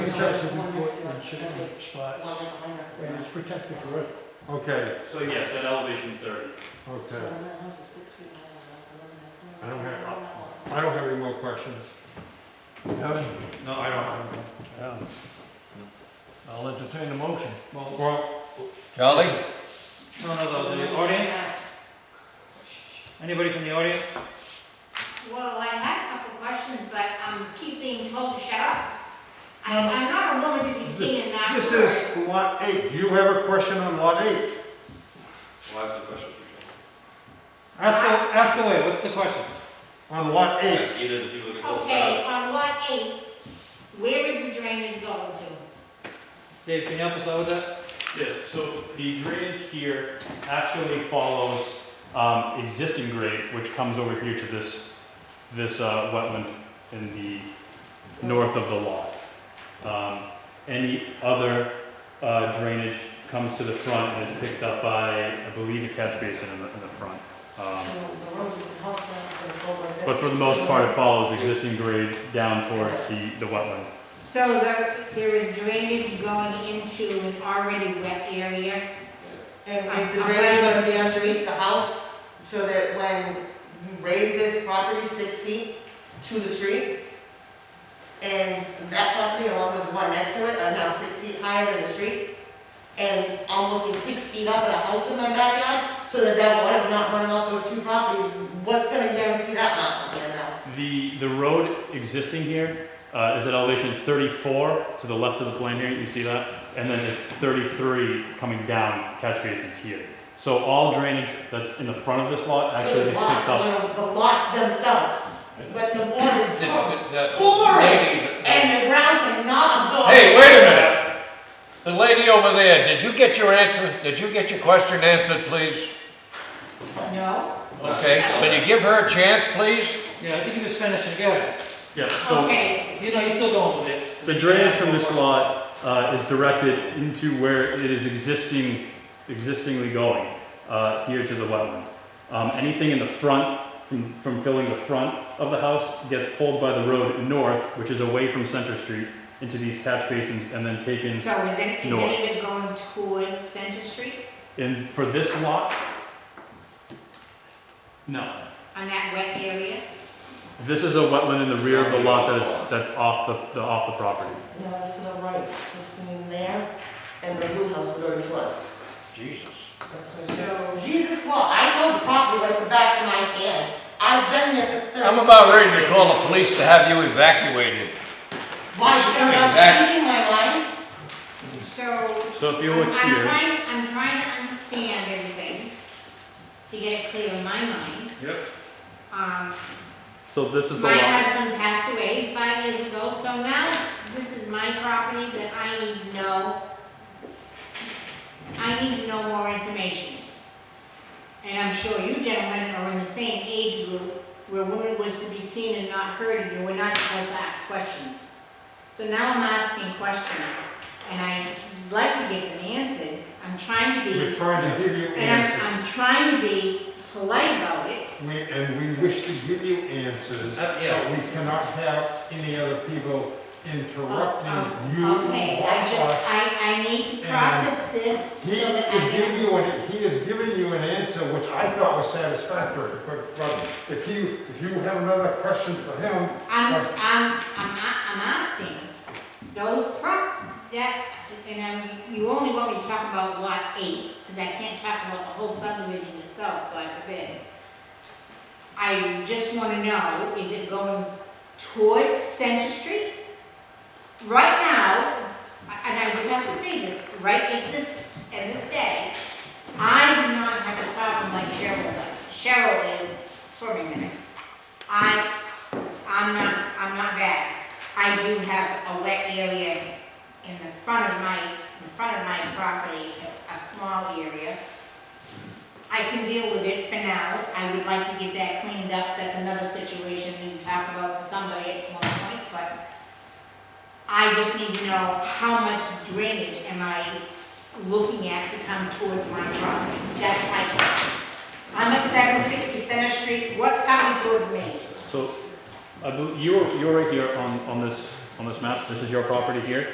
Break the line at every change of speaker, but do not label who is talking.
excessive importance should be spots, and it's protected road.
Okay,
So yes, at elevation thirty.
okay. I don't have, I don't have any more questions. No, I don't.
Yeah. I'll entertain a motion.
Well,
Well,
Charlie?
no, no, no, the audience, anybody from the audience?
Well, I had a couple questions, but I'm keep being told to shut up. I- I'm not a woman to be seen in that.
this
word.
is lot eight. Do you have a question on lot eight?
Well, that's the question.
Ask, a- ask away, what's the question?
On lot eight?
Ask either of the people that call
Okay, on lot eight, where is the drainage going to?
Dave, can you help us out with that?
Yes, so the drainage here actually follows um, existing grade, which comes over here to this, this uh, wetland in the north of the lot. Um, Any other uh, drainage comes to the front and is picked up by, I believe, a catch basin in the, in the front. Um, But for the most part, it follows existing grade down towards the, the wetland.
So there, there is drainage going into an already wet area?
And is the drainage gonna be underneath the house, so that when you raise this property six feet to the street, and that property along with the one next to it are now six feet higher than the street, and I'm looking six feet up at a house in my backyard, so that that water's not running off those two properties, what's gonna guarantee that not to get out?
The, the road existing here uh, is at elevation 34 to the left of the plane here, you see that? And then it's 33 coming down, catch basins here. So all drainage that's in the front of this lot
So
actually
the
gets
lots,
picked up.
you know, The lots themselves, but the board is
The
pouring,
lady,
and the ground cannot absorb.
uh, Hey, wait a minute. the lady over there, did you get your answer, did you get your question answered, please?
No.
Okay, can you give her a chance, please?
Yeah, I think you just finished it, go ahead.
Yeah, so
Okay,
You know, you're still going with it.
the drainage from this lot uh, is directed into where it is existing, existingly going, uh, here to the wetland. Um, Anything in the front, from from filling the front of the house, gets pulled by the road north, which is away from Center Street, into these catch basins and then taken
so is it, is
No.
it even going towards Center Street
And for this lot? No.
on that wet area?
This is a wetland in the rear of the lot that's, that's off the, the, off the property.
No, it's to the right, between there and the blue house that already was.
Jesus.
Jesus, well, I know the property like the back of my hand. I've been there for thirty.
I'm about ready to call the police to have you evacuated.
Why should I
Exactly.
be speaking my mind?
So
So if you
I'm-
look
I'm
here,
trying, I'm trying to understand everything, to get it clear in my mind.
Yep.
Um,
so this is the
my
lot.
husband passed away five years ago, so now this is my property that I need to know. I need to know more information. And I'm sure you gentlemen are in the same age group where women was to be seen and not heard, and you were not supposed to ask questions. So now I'm asking questions, and I'd like to get them answered. I'm trying to
We're
be,
trying to give you
and I'm,
answers.
I'm trying to be polite about it,
We, and we wish to give you answers,
Uh,
but
yeah.
we cannot have any other people interrupting you or
Uh, Okay, I just,
us.
I, I need to process this so
He
that I
is giving you,
can.
an he has given you an answer which I thought was satisfactory, but, but if you, if you have another question for him,
I'm, I'm, I'm, a- I'm asking, those pro, that, and um, you only want me to talk about lot eight, because I can't talk about the whole subdivision itself, God forbid. I just wanna know, is it going towards Center Street? Right now, and I would have to say this, right at this, at this day, I do not have a problem like Cheryl does. Cheryl is swimming in it. I, I'm not, I'm not bad. I do have a wet area in the front of my, in front of my property, a, a small area. I can deal with it for now. I would like to get that cleaned up. That's another situation we can talk about to somebody at one point, but I just need to know how much drainage am I looking at to come towards my property? That's my question. I'm at seven sixty Center Street. What's coming towards me?
So, I bel- you're, you're right here on, on this, on this map. This is your property here.